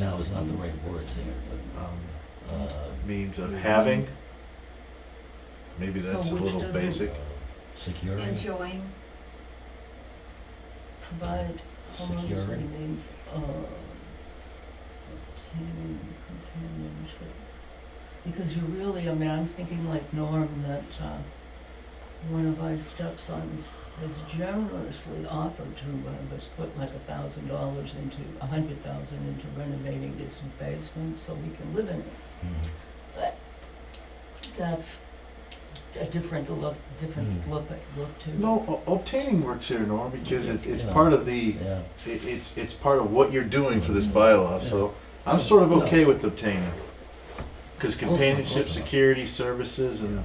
now is not the right word there, um, but, uh, means of having. Maybe So that's a which little doesn't- basic. uh, securing, enjoying, provide homeowners with Security. a means of obtaining companionship. Because you really, I mean, I'm thinking like Norm, that uh, one of our stepsons has generously offered to one of us put like a thousand dollars into, a hundred thousand into renovating his basement so we can live in it. Mhm. That's a different look, different Hmm. look, at- look to. No, o- obtaining works here, Norm, because it, it's Yeah. part of the, yeah, it, it's, it's part of what you're doing for this Mhm. bylaw, so I'm Yeah. sort of No. okay with obtaining. Cause Of course not, companionship, of course not. security, services, and the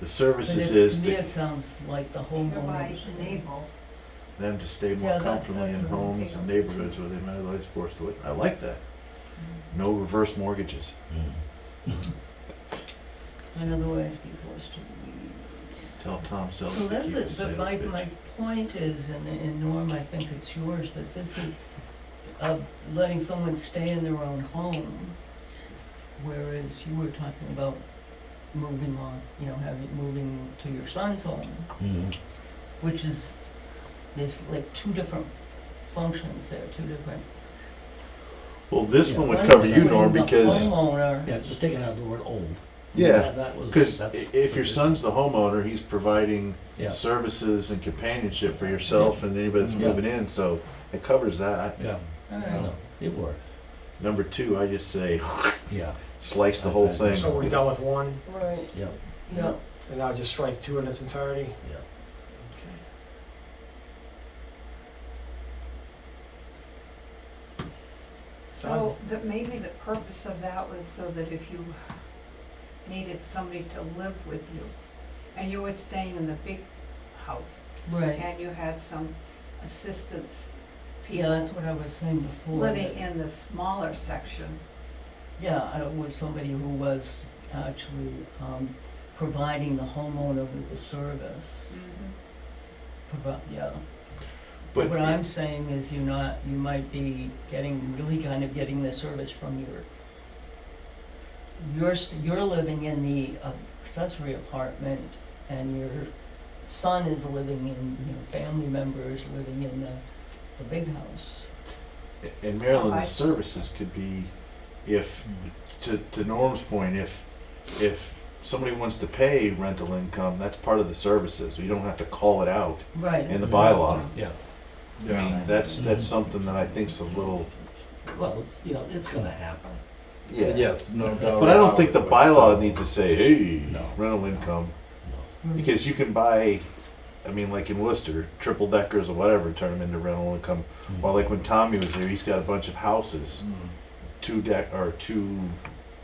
But services it's- is to me, to- it sounds like the thereby homeowners. enable. them to stay Yeah, more that- comfortably that's in what I'm homes and thinking. neighborhoods where they might otherwise be forced to live. I like that. Mm-hmm. No reverse mortgages. mm. and otherwise be forced to leave. Tell Tom Selleck So to that's keep it, his but sales my, pitch. my point is, and, and Norm, I think it's yours, that this is, uh, letting someone stay in their own home, whereas you were talking about moving on, you know, having, moving to your son's home, Mhm. which is, there's like two different functions there, two different. Well, this one One would is cover you, when Norm, the because, Homeowner. Yeah, just taking out the word old. yeah, That- that was- because that's- if your son's the homeowner, he's providing Yeah, services and companionship for yourself and anybody that's Yeah. moving in, so it covers that. yeah, All right. no, it worked, Number two, I just say yeah, slice the whole thing. So we're done with one, Right, yeah, yeah, and now just strike two in its entirety? yeah. So that maybe the purpose of that was so that if you needed somebody to live with you, and you were staying in the big house, right. and you had some assistance Yeah, people that's what I was saying before. that- living in the smaller section. Yeah, I was somebody who was actually um, providing the homeowner with the service. Provi- yeah. But what I'm saying is, you're not. You might be getting really kind of getting the service from your. You're s- you're living in the accessory apartment, and your son is living in. You know, family members living in the, the big house. in Maryland, the Alright. services could be, if, to, to Norm's point, if, if somebody wants to pay rental income, that's part of the services. You don't have to call it out. Right. In the bylaw. Yeah, I Mm-hmm. mean, that's, that's something that I think's a little, well, it's, you know, it's gonna happen. yeah. no doubt. But I don't think the about it, but bylaw still. needs to say, hey, No. rental income, No. Mm. because you can buy, I mean, like in Worcester, triple deckers or whatever, and turn them into rental income. Mm-hmm. Well, like when Tommy was there, he's got a bunch of houses, Mm. two deck, or two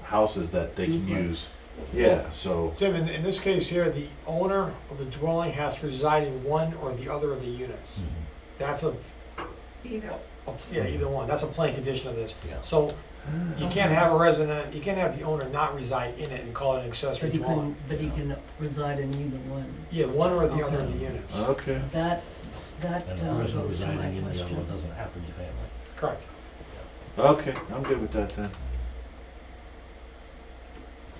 houses that they can Duplex. use. Yeah, so, Jim, in, in this case here, the owner of the dwelling has to reside in one or the other of the units. Mhm. That's a, Either, a- yeah, either one, that's a plain condition of this. Yeah. So you can't have a resident, you can't have the owner not reside in it and call it an accessory But he dwelling. can, but he can reside in either one. Yeah, one or the other of the Okay. units, okay. That, that And uh, the person goes to my residing in the other one question. doesn't happen to be family. correct. Okay, I'm good with that then.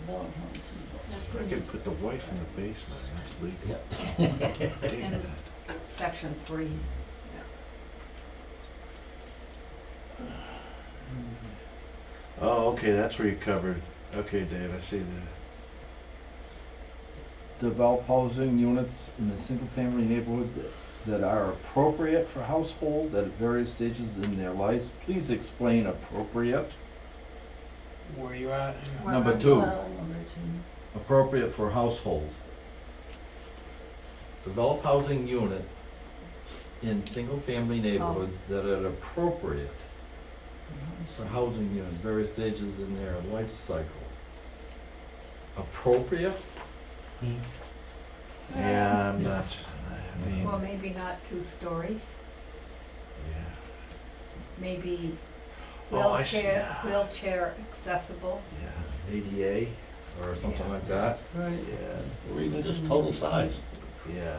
Development policy. I could put the wife in the basement, that's legal. Dig And- that. section three. Oh, okay, that's where you covered. Okay, Dave, I see the, Develop housing units in a single-family neighborhood that- that are appropriate for households at various stages in their lives. Please explain appropriate. Where you at? Where Number I'm- two. Well, number two. Appropriate for households. Develop housing unit in single-family neighborhoods that are appropriate for housing units, various stages in their life cycle. Appropriate? Hmm. yeah, I'm not, I mean, Um, Well, maybe not two stories, yeah. maybe Oh, I see, wheelchair, yeah. wheelchair accessible. Yeah, ADA or something like that. Right. yeah, Or even just total size. yeah.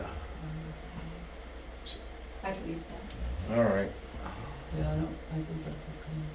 I'd leave that. All right. Yeah, I don't, I think that's okay.